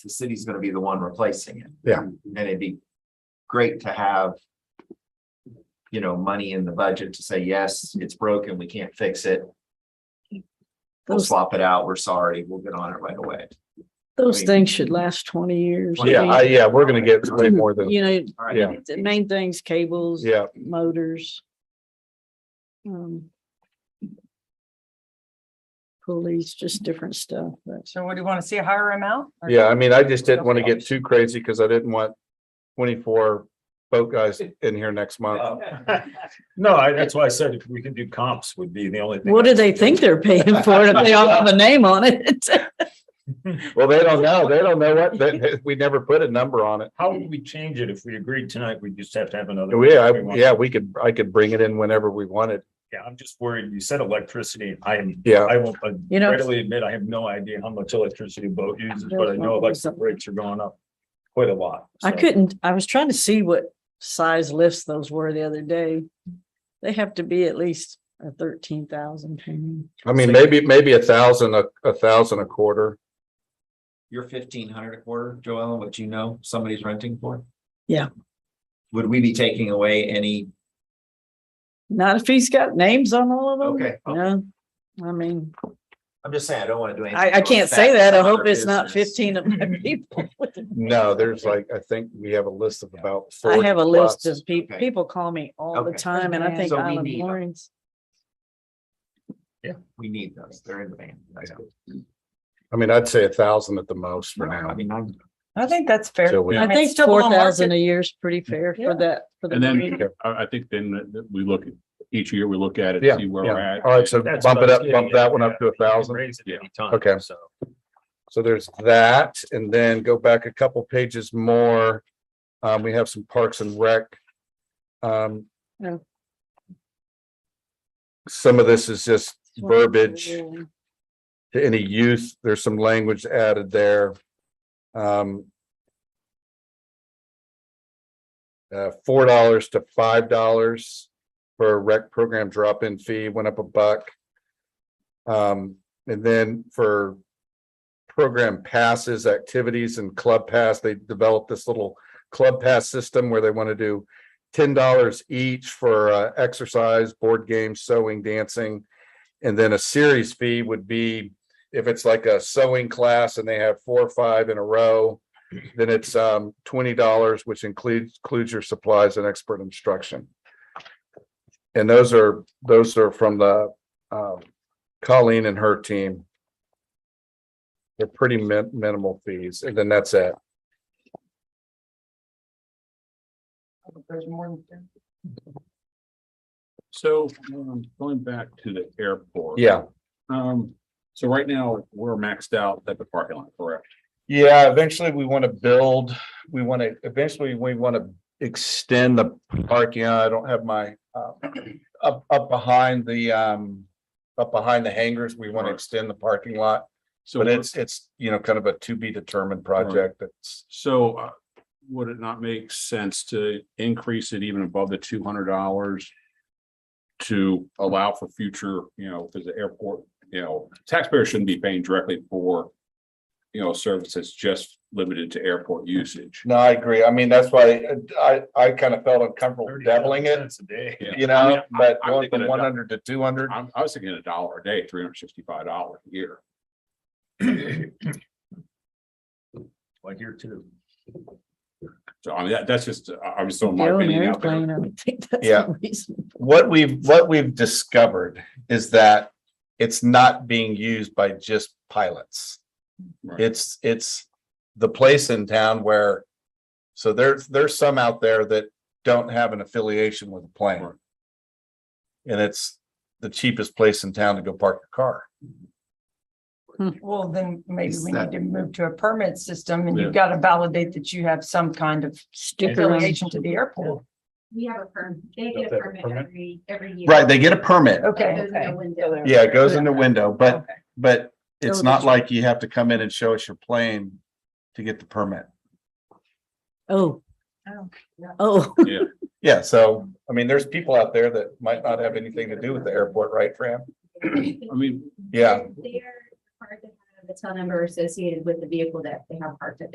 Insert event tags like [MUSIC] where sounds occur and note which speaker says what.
Speaker 1: the city's gonna be the one replacing it.
Speaker 2: Yeah.
Speaker 1: And it'd be great to have. You know, money in the budget to say, yes, it's broken, we can't fix it, we'll
Speaker 3: Those,
Speaker 1: swap it out, we're sorry, we'll get on it right away.
Speaker 3: those
Speaker 1: mean-
Speaker 3: things should last twenty years. I
Speaker 2: Yeah,
Speaker 3: mean,
Speaker 2: I, yeah, we're gonna get way more than,
Speaker 3: You know,
Speaker 1: All right.
Speaker 2: Yeah.
Speaker 3: the main things, cables,
Speaker 2: yeah,
Speaker 3: motors. Um. Pulleys, just different stuff, but
Speaker 4: So what do you want to see a higher amount? Or-
Speaker 2: yeah, I mean, I just didn't want to
Speaker 4: Okay.
Speaker 2: get too crazy because I didn't want twenty-four boat guys in here next month.
Speaker 1: Uh,
Speaker 5: Oh.
Speaker 6: No, I, that's why I said if we can do comps would be the only thing.
Speaker 3: what do they think they're paying for it if they all have a name on it? [LAUGHS]
Speaker 2: Well, they don't know, they don't know what, they- [LAUGHS] they- we never put a number on it.
Speaker 6: How would we change it if we agreed tonight? We just have to have another.
Speaker 2: We, I-
Speaker 6: we want-
Speaker 2: Oh, yeah, we could, I could bring it in whenever we wanted,
Speaker 6: Yeah, I'm just worried. You said electricity. I am,
Speaker 2: yeah.
Speaker 6: I will uh,
Speaker 3: You know-
Speaker 6: readily admit, I have no idea how much electricity a boat uses, but I know electric rates are going up quite a lot.
Speaker 3: I
Speaker 6: so.
Speaker 3: couldn't, I was trying to see what size lifts those were the other day. They have to be at least a thirteen thousand pound.
Speaker 2: I mean, maybe, maybe a thousand, a, a thousand a quarter.
Speaker 1: You're fifteen hundred a quarter, Joellen, what you know somebody's renting for?
Speaker 3: Yeah.
Speaker 1: Would we be taking away any?
Speaker 3: Not if he's got names on all of them.
Speaker 1: Okay.
Speaker 3: No, I mean,
Speaker 1: I'm just saying, I don't wanna do anything.
Speaker 3: I, I
Speaker 1: to affect
Speaker 3: can't say that. I
Speaker 1: other
Speaker 3: hope it's not
Speaker 1: business.
Speaker 3: fifteen
Speaker 1: [LAUGHS]
Speaker 3: of my people.
Speaker 2: No, there's like, I think we have a list of about.
Speaker 3: I
Speaker 2: 40
Speaker 3: have a list
Speaker 2: plus.
Speaker 3: of people,
Speaker 1: Okay.
Speaker 3: people call me all the
Speaker 1: Okay.
Speaker 3: time and I think
Speaker 1: So we
Speaker 3: Island
Speaker 1: need-
Speaker 3: Florence.
Speaker 1: We need those, they're in the van. That's it.
Speaker 2: I mean, I'd say a thousand at the most for
Speaker 1: I
Speaker 2: now.
Speaker 1: mean, I'm.
Speaker 4: I think that's fair.
Speaker 2: till we-
Speaker 3: I
Speaker 4: mean,
Speaker 3: think
Speaker 4: it's still below
Speaker 3: four thousand a
Speaker 4: market.
Speaker 3: year is pretty fair
Speaker 4: Yeah.
Speaker 3: for that. for the
Speaker 5: And then
Speaker 3: green.
Speaker 5: I, I think then that- that we look, at each year we look at it,
Speaker 2: Yeah,
Speaker 5: see where
Speaker 2: yeah.
Speaker 5: we're at.
Speaker 2: All right, so
Speaker 6: That's
Speaker 2: bump
Speaker 6: what
Speaker 2: it
Speaker 6: I was
Speaker 2: up,
Speaker 6: getting
Speaker 2: bump
Speaker 6: at,
Speaker 2: that one
Speaker 6: yeah.
Speaker 2: up to a
Speaker 6: You can
Speaker 2: thousand.
Speaker 6: Raise it
Speaker 5: Yeah.
Speaker 6: any time.
Speaker 2: Okay.
Speaker 6: So.
Speaker 2: So there's that, and then go back a couple pages more. Um, we have some parks and rec. Um.
Speaker 3: Yeah.
Speaker 2: Some of this is just verbiage.
Speaker 3: Yeah.
Speaker 2: to any use, there's some language added there. Um. Uh, four dollars to five dollars for a rec program drop-in fee, went up a buck. Um, and then for. Program passes, activities and club pass, they developed this little club pass system where they want to do. Ten dollars each for uh, exercise, board games, sewing, dancing. And then a series fee would be if it's like a sewing class and they have four or five in a row. Then it's um twenty dollars, which includes includes your supplies and expert instruction. And those are, those are from the um Colleen and her team. They're pretty min- minimal fees, and then that's it.
Speaker 4: There's more than ten.
Speaker 5: So, um, going back to the airport.
Speaker 2: Yeah,
Speaker 5: Um, so right now, we're maxed out at the parking lot, correct?
Speaker 2: yeah, eventually we want to build, we want to, eventually we want to extend the parking. I don't have my uh, up, up behind the um, up behind the hangars, we want to
Speaker 5: Right.
Speaker 2: extend the parking lot.
Speaker 5: So
Speaker 2: But it's, it's, you know, kind of a to be determined project that's,
Speaker 5: So, uh, would it not make sense to increase it even above the two hundred dollars? To allow for future, you know, because the airport, you know, taxpayers shouldn't be paying directly for. You know, services just limited to airport usage.
Speaker 2: no, I agree. I mean, that's why uh, I, I kind of felt uncomfortable doubling it,
Speaker 6: $35 a day.
Speaker 5: Yeah.
Speaker 2: you
Speaker 5: I mean,
Speaker 2: know,
Speaker 5: I-
Speaker 2: but
Speaker 5: I'm
Speaker 2: going
Speaker 5: thinking
Speaker 2: from
Speaker 5: of
Speaker 2: one hundred to two hundred.
Speaker 5: I'm, I was thinking a dollar a day, three hundred sixty-five dollars a year.
Speaker 6: [COUGHS] Like here too.
Speaker 5: So I mean, that, that's just, I, I was throwing my
Speaker 3: Go in an
Speaker 5: opinion out there.
Speaker 3: airplane, I would think that's
Speaker 2: Yeah.
Speaker 3: reasonable.
Speaker 2: what we've, what we've discovered is that it's not being used by just pilots.
Speaker 5: Right.
Speaker 2: It's, it's the place in town where, so there's, there's some out there that don't have an affiliation with a plane.
Speaker 5: Right.
Speaker 2: And it's the cheapest place in town to go park your car.
Speaker 4: Well, then maybe
Speaker 1: Is
Speaker 4: we
Speaker 1: that-
Speaker 4: need to move to a permit system and
Speaker 5: Yeah.
Speaker 4: you've got to validate that you have some kind of
Speaker 3: Sticker on.
Speaker 4: affiliation to the airport.
Speaker 7: We have a perm, they get
Speaker 6: Don't they
Speaker 7: a
Speaker 6: have a
Speaker 7: permit
Speaker 6: permit?
Speaker 7: every, every year.
Speaker 2: Right, they get a permit.
Speaker 4: Okay,
Speaker 7: Goes in
Speaker 4: okay.
Speaker 7: the window.
Speaker 2: Yeah, it goes in the window, but,
Speaker 4: Okay.
Speaker 2: but it's
Speaker 3: Oh,
Speaker 2: not
Speaker 3: that's-
Speaker 2: like you have to come in and show us your plane to get the permit.
Speaker 3: Oh,
Speaker 4: Oh, yeah.
Speaker 3: oh,
Speaker 2: Yeah, so, I mean, there's people out there that might not have anything to do with the airport, right, Fran?
Speaker 5: I mean,
Speaker 2: Yeah.
Speaker 7: They're required to have a tow number associated with the vehicle that they have parked at